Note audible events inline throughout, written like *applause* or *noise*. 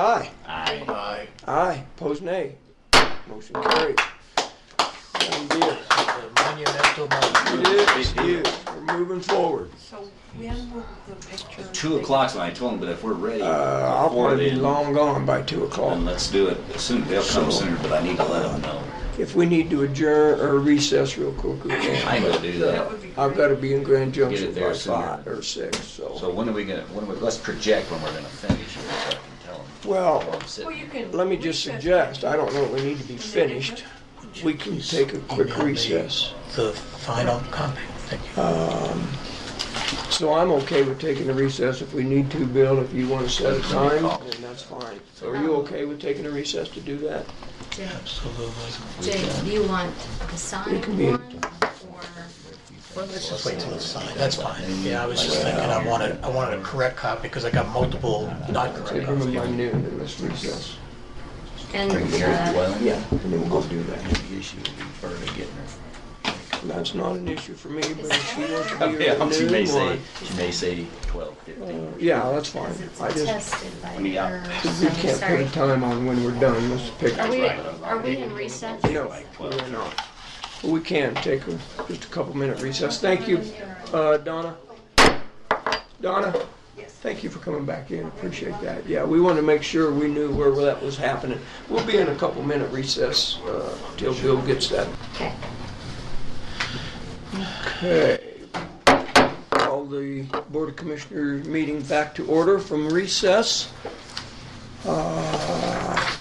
Aye. Aye. Aye. Aye. Pose nay. Motion carried. Done deal. Monumental It moment. is, it is. We're moving forward. So when will the picture? Two o'clock's when I told them, but if we're ready, Uh, I'll before probably be then, long gone by two o'clock. then let's do it. Soon, they'll come So- sooner, but I need to let them know. If we need to adjourn or recess real quick, we I can. ain't gonna do That that. would be great. I've gotta be in Grand Junction Get it there by sooner. five or six, So so. when are we gonna, when are we, let's project when we're gonna finish here, so I can tell them. Well, I'm Well, you sitting. can. let me just recess suggest, I don't know if we need to be finished. We can take a quick Email me recess. The final copy. Thank you. Um, So I'm okay with taking a recess if we need to, Bill, if you wanna set a time, then that's fine. So are you okay with taking a recess to do that? Absolutely. Jake, do you want the signed can be- one or? Well, let's just wait till it's signed. That's fine. Yeah, I was just thinking I wanted, I wanted a correct copy because I got multiple not correct Take them copies. by noon and let's recess. And Bring here at uh, twelve. Yeah, and then we'll go do that. The issue would be Berta getting her. That's not an issue for me, but if she *laughs* wants to be here *laughs* Yeah, at she may noon, say, why- Uh, she may say twelve, fifteen. Yeah, that's fine. it's I just, attested by mean, I- her, *laughs* we so I'm can't put sorry. a time on when we're done, let's pick. Are we, Right, but I'm- are we in recess? No, we're not. But We can take a, just a couple minute recess. Thank you, uh, Donna. Donna? Thank you for coming back in, appreciate that. Yeah, we wanted to make sure we knew where that was happening. We'll be in a couple minute recess, uh, till Bill gets that. Okay. Okay. Call the Board of Commissioners meeting back to order from recess. Uh,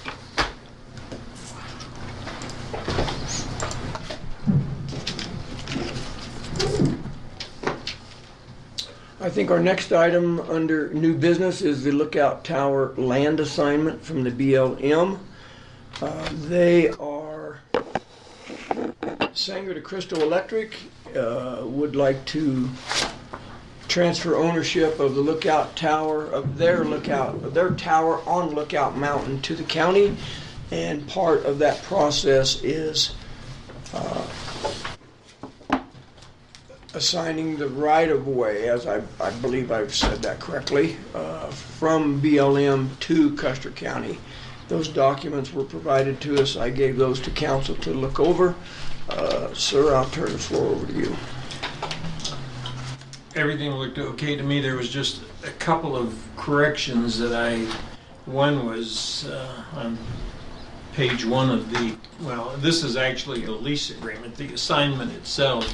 I think our next item under new business is the Lookout Tower land assignment from the BLM. Uh, They are Sanger de Cristo Electric uh, would like to transfer ownership of the lookout tower, of their lookout, of their tower on Lookout Mountain to the county. And part of that process is uh, assigning the right-of-way, as I, I believe I've said that correctly, uh, from BLM to Custer County. Those documents were provided to us. I gave those to council to look over. Uh, Sir, I'll turn the floor over to you. everything looked okay to me. There was just a couple of corrections that I, one was uh, on page one of the, well, this is actually the lease agreement. The assignment itself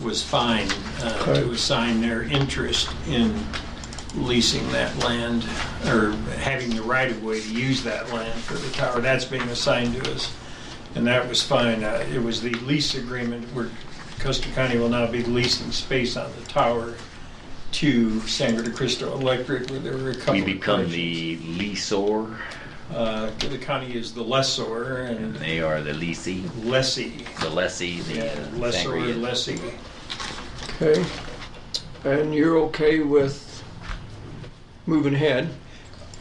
was fine uh, to Okay. assign their interest in leasing that land or having the right of way to use that land for the tower. That's being assigned to us. And that was fine. Uh, It was the lease agreement where Custer County will now be leasing space on the tower to Sangre de Cristo Electric, where there were a couple We of become corrections. the leasor, Uh, The county is the lessor and and they are the leasee, lessee. the lessee, the Yeah, uh, Lessor, sangria. lessee. Okay. And you're okay with moving ahead?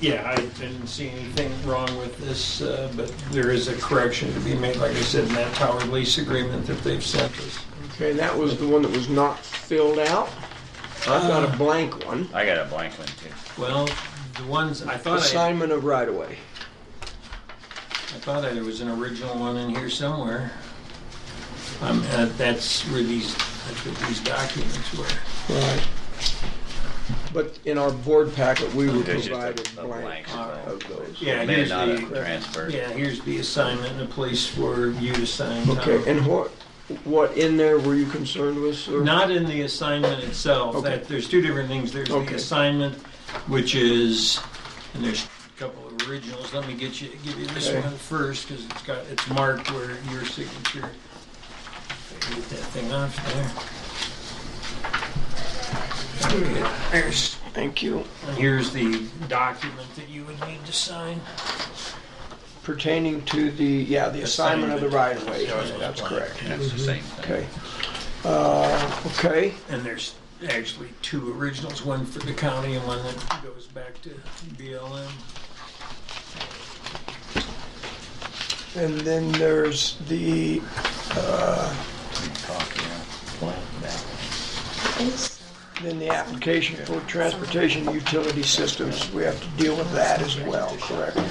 Yeah, I didn't see anything wrong with this, uh, but there is a correction to be made, like I said, in that tower lease agreement that they've sent us. Okay, and that was the one that was not filled out. I've got a blank one. I got a blank one too. Well, the ones, I thought I... Assignment of right-of-way. I thought there was an original one in here somewhere. Um, uh, that's where these, that's what these documents were. Right. But in our board packet, we were There's just a- provided a blank Alright. of those. Yeah, May here's not a the, transfer. yeah, here's the assignment and a place for you to sign. Tom. Okay, and what, what in there were you concerned with, sir? Not in the assignment itself, Okay. that, there's two different things. There's the Okay. assignment, which is, and there's a couple of originals. Let me get you, give you this Okay. one first, because it's got, it's marked where your signature. Get that thing off there. Okay, There's, Thank you. and here's the document that you would need to sign. Pertaining to the, yeah, the assignment of the right-of-way. Assignment. That's correct. That's the same thing. Okay. Uh, okay. And there's actually two originals, one for the county and one that goes back to BLM. And then there's the, uh, Talk, yeah. Blank, back. I think so. Then the application for transportation utility systems, we have to deal with that as well, correct?